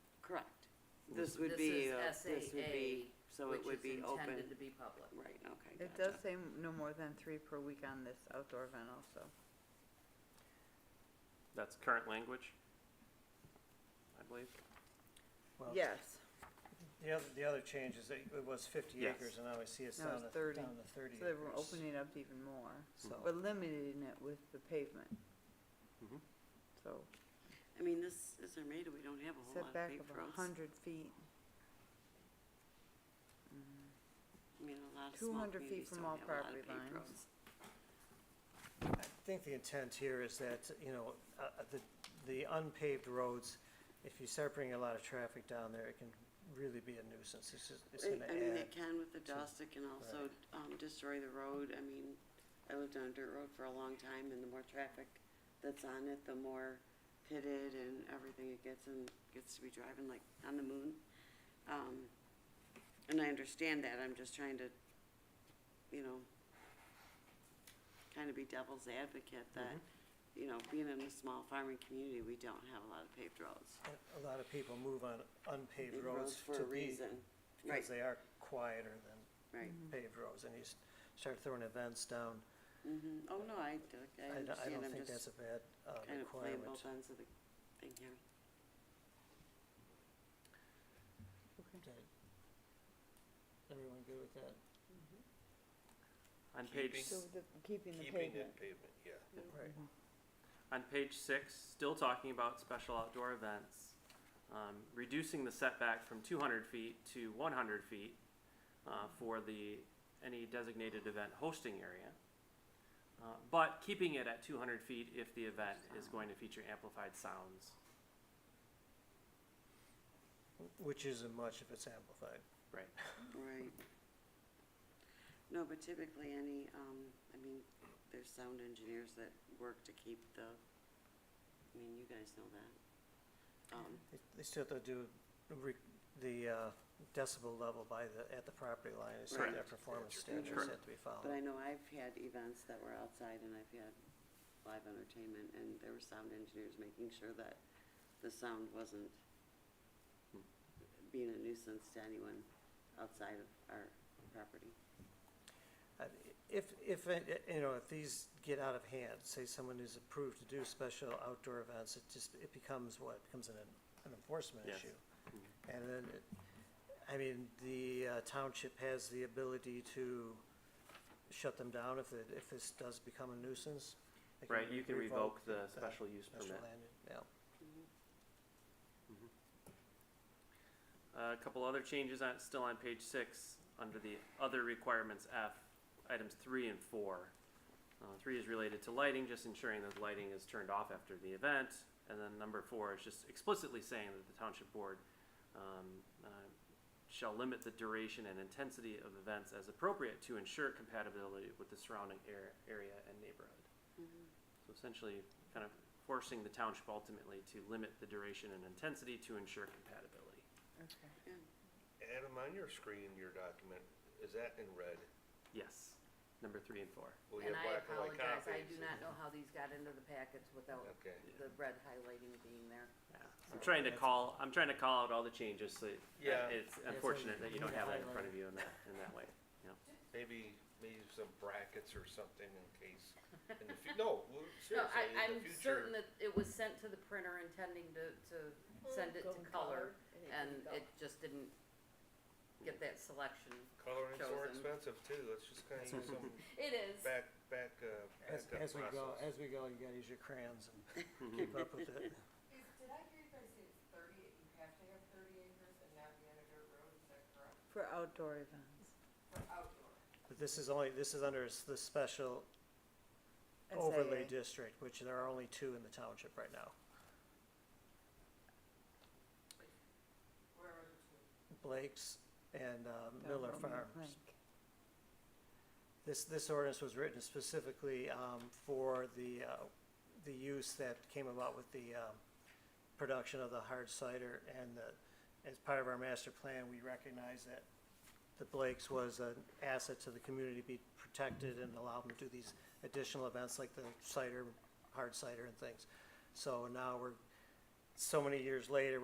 This would This be, is uh, this would be, so it which would is be open, intended to be public. right, okay, It does gotcha. say m- no more than three per week on this outdoor event also. Oh, That's current language, I believe. Well, Yes, The other, the other change is that it was fifty Yes. acres and now I see it's Now down it's to, 30. down to thirty acres. so they were opening it up even more, So, Oh. but limiting it with the pavement. Mm-hmm. Mhm. So I mean, this is Armada, we don't have a whole lot of setback paved of a roads. hundred feet. Mm-hmm. I mean, a lot of small 200 feet communities from don't all have a lot of property paved lines. roads. I think the intent here is that, you know, uh, uh, the, the unpaved roads, if you start bringing a lot of traffic down there, it can really be a nuisance. It's just, it's gonna I mean, add, it can with the dust, it can also, um, destroy the road, I mean, I lived on a dirt road for a long time, and the more traffic that's on it, the more pitted and everything it gets, and gets to be driving like on the moon. Um, and I understand that, I'm just trying to, you know, kind of be devil's advocate that, Mm-hmm. you know, being in a small farming community, we don't have a lot of paved roads. and a lot of people move on unpaved Paved roads for to a be, reason, right, because they are quieter than right. Mm-hmm. paved roads. And you s- start throwing events down, Mhm. Oh, no, I, I I don't, I understand, don't I'm think that's just a bad, uh, kind of playing requirement. both ends of the thing here. Okay. Everyone good with that? On page, Keeping. s- So the, keeping the Keeping pavement. Mm-hmm. that pavement, yeah. Right. on page six, still talking about special outdoor events, um, reducing the setback from two hundred feet to one hundred feet, uh, for the, any designated event hosting area. Uh, but keeping it at two hundred feet if the event is going to feature amplified sounds, Which isn't much if it's amplified. right? Right. No, but typically any, um, I mean, there's sound engineers that work to keep the, I mean, you guys know that. Um, They- They still have to do re- the uh, decibel level by the, at the property line, it's Correct. their performance That's standards correct. have to be but I followed. know I've had events that were outside and I've had live entertainment and there were sound engineers making sure that the sound wasn't being a nuisance to anyone outside of our property. Uh, If, if, uh, you know, if these get out of hand, say someone is approved to do special outdoor events, it just, it becomes what, It becomes an an enforcement Yes. Mm-hmm. issue. And then, it- I mean, the uh, township has the ability to shut them down if it, if this does become a nuisance. They Right, you can revoke the that special use special permit. land- Yeah. Uh, A couple other changes on, still on page six, under the other requirements F, items three and four. Uh, three is related to lighting, just ensuring that lighting is turned off after the event. And then number four is just explicitly saying that the township board, um, uh, shall limit the duration and intensity of events as appropriate to ensure compatibility with the surrounding air, area and neighborhood. So essentially, kind of forcing the township ultimately to limit the duration and intensity to ensure compatibility. Adam, on your screen, your document, is that in red? Yes, number three and four. Well, you And have I black and white apologize, I copies. do not know how these got into the packets without Okay. the red highlighting being there. Yeah. I'm trying to call. I'm trying to call out all the changes. So it- Yeah. it's on unfortunate that the- you on don't the have that in front of you in that in that way. Maybe, maybe some brackets or something in case, in the fu- no, well, No, I, seriously, I'm in the future. certain that it was sent to the printer intending to, to send it to color, and it just didn't get that selection. Coloring's more chosen. expensive too, let's just kinda use some It is. back, back, uh, As, backup as we go, process. as we go, you gotta use your crayons and keep up with it. Is, did I hear you guys say it's thirty, you have to have thirty acres and not be on a dirt road, is that correct? For outdoor events. For outdoor? But this is only, this is under s- the special overlay SAA. district, which there are only two in the township right now. Where are the two? Blake's and, uh, Down Miller Roman Farms. Lake. This, this ordinance was written specifically, um, for the, uh, the use that came about with the, um, production of the hard cider and the, as part of our master plan, we recognize that the Blake's was an asset to the community, be protected and allow them to do these additional events like the cider, hard cider and things. So now we're, so many years later,